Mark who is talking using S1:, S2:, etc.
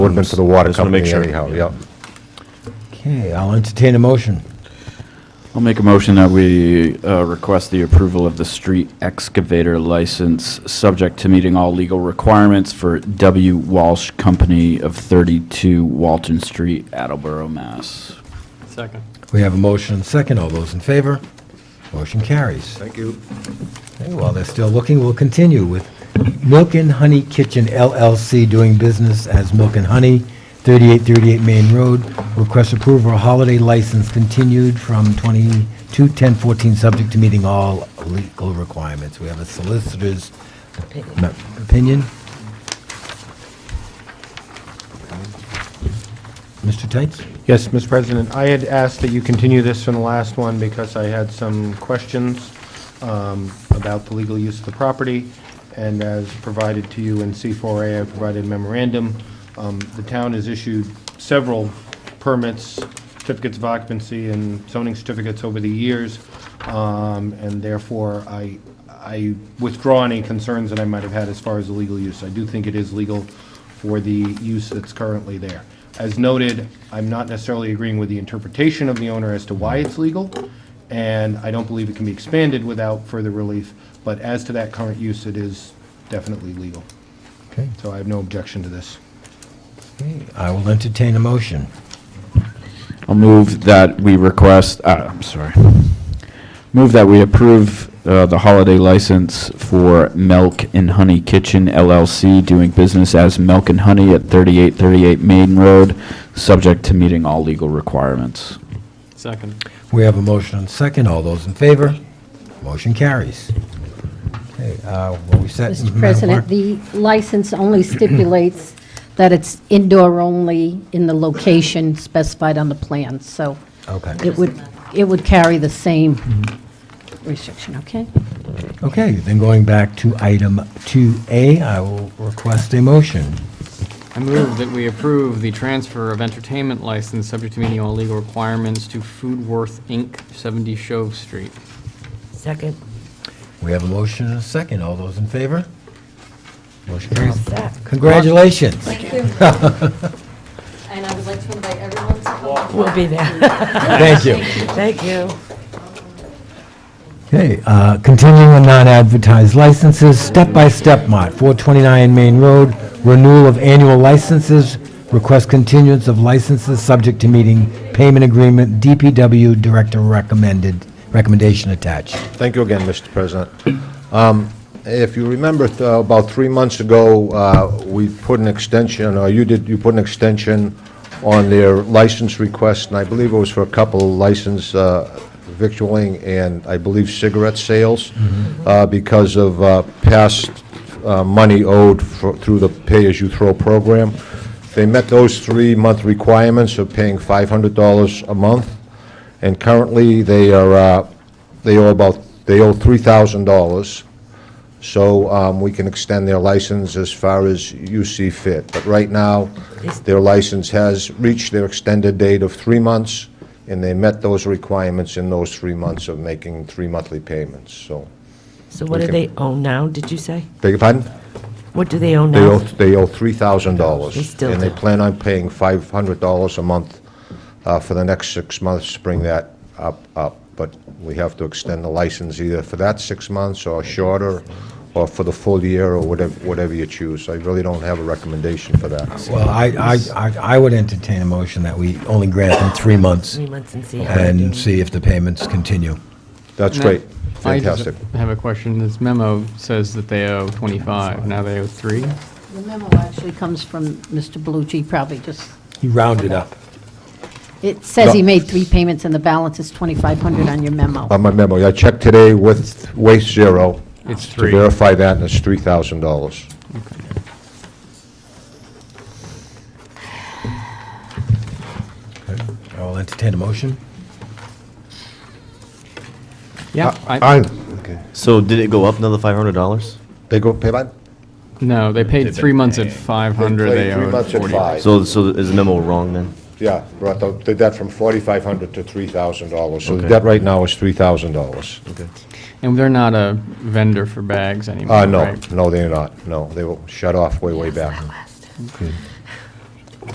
S1: Would have been to the water
S2: Just wanna make
S1: company
S2: sure.
S1: anyhow, yeah.
S3: Okay, I'll entertain a motion.
S4: I'll make a motion that we uh, request the approval of the street excavator license, subject to meeting all legal requirements for W. Walsh Company of 32 Walton Street, Attleboro, Mass.
S5: Second.
S3: We have a motion and a second. All those in favor? Motion carries.
S1: Thank you.
S3: Okay, While they're still looking, we'll continue with Milk and Honey Kitchen LLC doing business as Milk and Honey, 3838 Main Road. Request approval of holiday license continued from 22/10/14, subject to meeting all legal requirements. We have a solicitor's ma- opinion. Mr. Tights?
S6: Yes, Mr. President, I had asked that you continue this from the last one because I had some questions um, about the legal use of the property, and as provided to you in C4A, I provided memorandum. Um, The town has issued several permits, certificates of occupancy, and zoning certificates over the years, um, and therefore, I, I withdraw any concerns that I might have had as far as the legal use. I do think it is legal for the use that's currently there. As noted, I'm not necessarily agreeing with the interpretation of the owner as to why it's legal, and I don't believe it can be expanded without further relief, but as to that current use, it is definitely legal.
S3: Okay.
S6: So I have no objection to this.
S3: Okay, I will entertain a motion.
S4: I'll move that we request, uh, I'm sorry. Move that we approve uh, the holiday license for Milk and Honey Kitchen LLC, doing business as Milk and Honey at 3838 Main Road, subject to meeting all legal requirements.
S5: Second.
S3: We have a motion and a second. All those in favor? Motion carries. Okay, uh, what we set?
S7: Mr.
S3: Madam
S7: President,
S3: Clerk?
S7: the license only stipulates that it's indoor only in the location specified on the plan, so
S3: Okay,
S7: it would, it would carry the same restriction, okay?
S3: okay, then going back to item 2A, I will request a motion.
S5: I move that we approve the transfer of entertainment license subject to meeting all legal requirements to Foodworth Inc., 70 Shove Street.
S8: Second.
S3: We have a motion and a second. All those in favor? Motion carries.
S8: That.
S3: Congratulations.
S9: Thank you. And I would like to invite everyone to come.
S8: We'll be there.
S3: Thank you.
S8: Thank you.
S3: Okay, uh, continuing on non-advertised licenses, Step by Step Mart, 429 Main Road, renewal of annual licenses, request continuance of licenses subject to meeting payment agreement, DPW Director recommended, recommendation attached.
S1: Thank you again, Mr. President. Um, If you remember, th- about three months ago, uh, we put an extension, or you did, you put an extension on their license request, and I believe it was for a couple license uh, victualling and I believe cigarette sales, uh, because of uh, past uh, money owed fro- through the pay-as-you-throw program. They met those three-month requirements of paying $500 a month. And currently, they are, uh, they owe about, they owe $3,000. So um, we can extend their license as far as you see fit. But right now, their license has reached their extended date of three months, and they met those requirements in those three months of making three monthly payments, so.
S8: So what do
S1: Okay.
S8: they own now, did you say?
S1: Beg your pardon?
S8: What do they own
S1: They owe,
S8: now?
S1: they owe $3,000.
S8: They still
S1: And they
S8: do.
S1: plan on paying $500 a month uh, for the next six months, to bring that up, up. But we have to extend the license either for that six months or shorter, or for the full year, or whatever, whatever you choose. I really don't have a recommendation for that.
S3: Well, I, I, I- I would entertain a motion that we only grant them three months
S8: Three months and see. how they do.
S3: and see if the payments continue.
S1: That's
S5: And I-
S1: great,
S5: I just
S1: fantastic.
S5: have a question. This memo says that they owe 25, now they owe 3?
S7: The memo actually comes from Mr. Belucci, probably just,
S3: He rounded up.
S7: it says he
S1: No.
S7: made three payments and the balance is 2,500 on your memo.
S1: On my memo, I checked today with Waste Zero
S5: It's
S1: to
S5: 3.
S1: verify that, and it's $3,000.
S3: I will entertain a motion.
S5: Yeah, I,
S1: I, okay.
S2: So did it go up another five hundred dollars?
S1: They go, pay by?
S5: no, they paid three months at 500, they
S1: Three
S5: owe
S1: months at
S5: 40.
S1: five.
S2: So, so is the memo wrong then?
S1: Yeah, brought the, did that from forty-five hundred to three thousand dollars, so the
S2: Okay.
S1: debt right now is three thousand dollars.
S2: Okay.
S5: And they're not a vendor for bags anymore,
S1: Uh, no,
S5: right?
S1: no, they're not, no, they were shut off way, way back.